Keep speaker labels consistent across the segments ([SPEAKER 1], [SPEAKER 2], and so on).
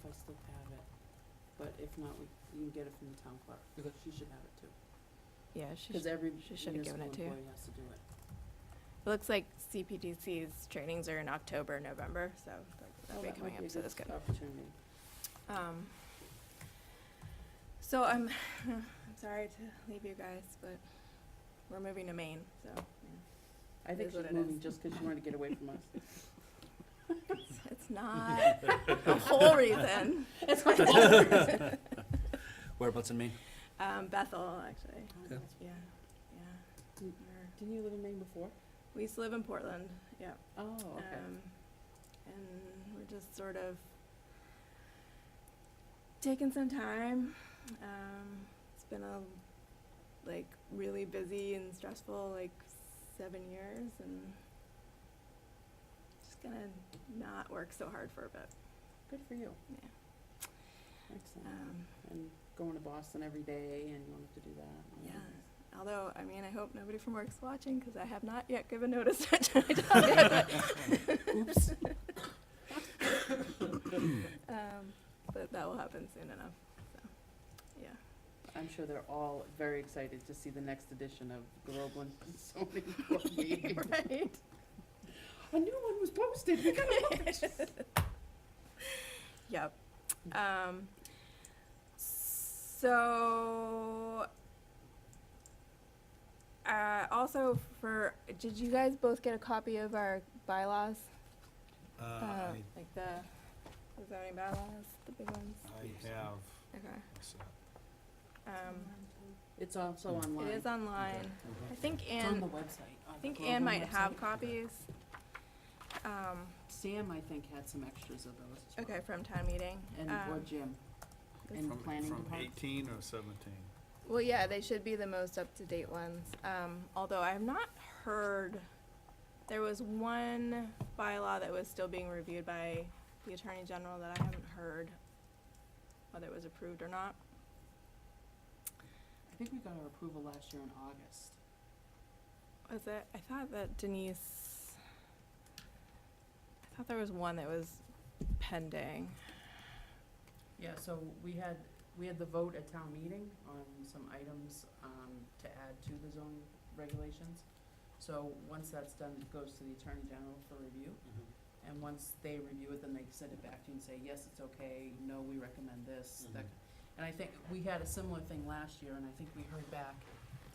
[SPEAKER 1] Crystal have it, but if not, we, you can get it from the town clerk, because she should have it too.
[SPEAKER 2] Yeah, she
[SPEAKER 1] Because
[SPEAKER 2] sh-
[SPEAKER 1] every
[SPEAKER 2] she should have
[SPEAKER 1] municipal
[SPEAKER 2] given it to you.
[SPEAKER 1] employee has to do it.
[SPEAKER 2] it looks like CPDC's trainings are in October, November, so that- that'll
[SPEAKER 1] Oh,
[SPEAKER 2] be
[SPEAKER 1] that might
[SPEAKER 2] coming
[SPEAKER 1] be
[SPEAKER 2] up,
[SPEAKER 1] a
[SPEAKER 2] so that's good.
[SPEAKER 1] Opportunity.
[SPEAKER 2] Um, so I'm, I'm sorry to leave you guys, but we're moving to Maine, so
[SPEAKER 1] I think
[SPEAKER 2] is what
[SPEAKER 1] she's
[SPEAKER 2] it is.
[SPEAKER 1] moving just because she wanted to get away from us.
[SPEAKER 2] it's, it's not the whole reason.
[SPEAKER 1] It's not the whole reason.
[SPEAKER 3] Whereabouts in Maine?
[SPEAKER 2] Um, Bethel, actually,
[SPEAKER 3] Yeah.
[SPEAKER 2] yeah,
[SPEAKER 1] Mm.
[SPEAKER 2] yeah. We're-
[SPEAKER 1] Didn't you live in Maine before?
[SPEAKER 2] We used to live in Portland, yeah.
[SPEAKER 1] Oh, okay.
[SPEAKER 2] Um, and we're just sort of taking some time. Um, it's been a like really busy and stressful like seven years, and just gonna not work so hard for a bit.
[SPEAKER 1] Good for you.
[SPEAKER 2] Yeah.
[SPEAKER 1] Excellent.
[SPEAKER 2] Um,
[SPEAKER 1] And going to Boston every day and you wanted to do that.
[SPEAKER 2] yeah. Although, I mean, I hope nobody from work's watching because I have not yet given notice. that I don't have it.
[SPEAKER 1] Oops.
[SPEAKER 2] um, but that will happen soon enough. So, yeah.
[SPEAKER 1] I'm sure they're all very excited to see the next edition of the Groveland zoning board meeting.
[SPEAKER 2] Right.
[SPEAKER 1] A new one was posted, we gotta look at it.
[SPEAKER 2] Yep. Um, so, uh, also for, did you guys both get a copy of our bylaws?
[SPEAKER 4] Uh,
[SPEAKER 2] Uh,
[SPEAKER 4] I,
[SPEAKER 2] like the, the zoning bylaws, the big ones?
[SPEAKER 4] I have,
[SPEAKER 2] Okay.
[SPEAKER 4] so-
[SPEAKER 2] Um,
[SPEAKER 1] It's also online.
[SPEAKER 2] it is online. I think
[SPEAKER 1] It's on
[SPEAKER 2] Anne,
[SPEAKER 1] the website.
[SPEAKER 2] I think Anne might have copies. Um,
[SPEAKER 1] Sam, I think, had some extras of those as well.
[SPEAKER 2] okay, from town meeting.
[SPEAKER 1] And, or
[SPEAKER 2] Um,
[SPEAKER 1] Jim.
[SPEAKER 2] That's-
[SPEAKER 1] And
[SPEAKER 4] from,
[SPEAKER 1] planning
[SPEAKER 4] from
[SPEAKER 1] department.
[SPEAKER 4] eighteen or seventeen?
[SPEAKER 2] Well, yeah, they should be the most up-to-date ones, um, although I have not heard, there was one bylaw that was still being reviewed by the Attorney General that I haven't heard whether it was approved or not.
[SPEAKER 1] I think we got our approval last year in August.
[SPEAKER 2] Was it, I thought that Denise, I thought there was one that was pending.
[SPEAKER 1] Yeah, so we had, we had the vote at town meeting on some items, um, to add to the zone regulations. So once that's done, it goes to the Attorney General for review, and once they review it, then they send it back to you and say, yes, it's okay, no, we recommend this, that.
[SPEAKER 3] Mhm.
[SPEAKER 1] And I think, we had a similar thing last year, and I think we heard back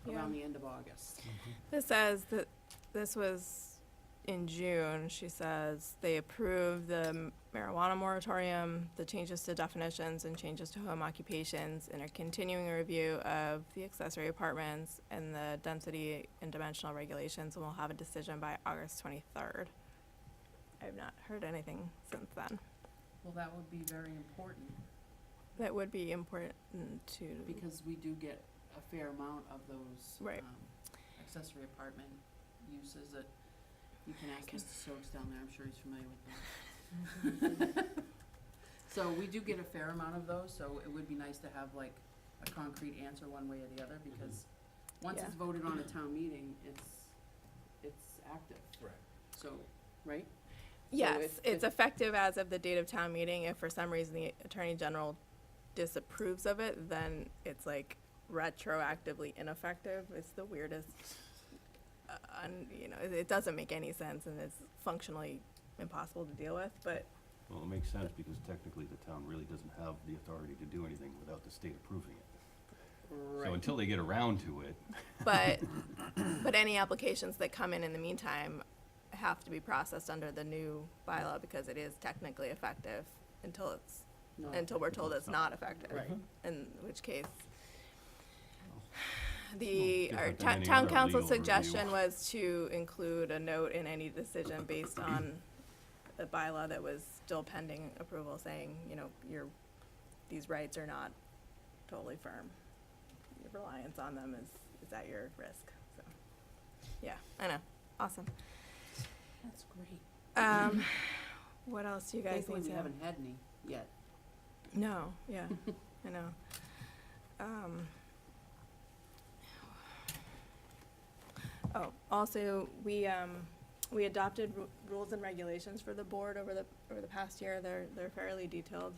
[SPEAKER 1] around the end of August.
[SPEAKER 2] This says that this was in June. She says they approved the marijuana moratorium, the changes to definitions and changes to home occupations, and are continuing a review of the accessory apartments and the density and dimensional regulations, and we'll have a decision by August 23rd. I've not heard anything since then.
[SPEAKER 1] Well, that would be very important,
[SPEAKER 2] That would be important to,
[SPEAKER 1] because we do get a fair amount of those.
[SPEAKER 2] Right.
[SPEAKER 1] um, Accessory apartment uses that, you can ask Mr. Stokes down there, I'm sure he's familiar with them. So we do get a fair amount of those, so it would be nice to have like a concrete answer one way or the other, because once it's voted on at town meeting, it's, it's active,
[SPEAKER 3] Right.
[SPEAKER 1] so, right?
[SPEAKER 2] yes,
[SPEAKER 1] if- if-
[SPEAKER 2] it's effective as of the date of town meeting. If for some reason the Attorney General disapproves of it, then it's like retroactively ineffective. It's the weirdest, uh, un, you know, it, it doesn't make any sense and it's functionally impossible to deal with, but
[SPEAKER 5] Well, it makes sense because technically the town really doesn't have the authority to do anything without the state approving it. So until they get around to it,
[SPEAKER 2] But, but any applications that come in in the meantime have to be processed under the new bylaw because it is technically effective until it's,
[SPEAKER 1] No.
[SPEAKER 2] until we're told it's not effective.
[SPEAKER 1] Right.
[SPEAKER 2] In which case, the,
[SPEAKER 5] Well,
[SPEAKER 2] our
[SPEAKER 5] different than
[SPEAKER 2] town
[SPEAKER 5] any
[SPEAKER 2] town
[SPEAKER 5] other
[SPEAKER 2] council's
[SPEAKER 5] legal
[SPEAKER 2] suggestion was to include a note in any decision based on the bylaw that was still pending approval saying, you know, your, these rights are not totally firm. Your reliance on them is, is at your risk, so, yeah, I know, awesome.
[SPEAKER 1] That's great.
[SPEAKER 2] Um, what else do you guys
[SPEAKER 1] Thankfully,
[SPEAKER 2] need to
[SPEAKER 1] we
[SPEAKER 2] know?
[SPEAKER 1] haven't had any yet.
[SPEAKER 2] No, yeah, I know. Um, oh, also, we, um, we adopted ru- rules and regulations for the board over the, over the past year. They're, they're fairly detailed.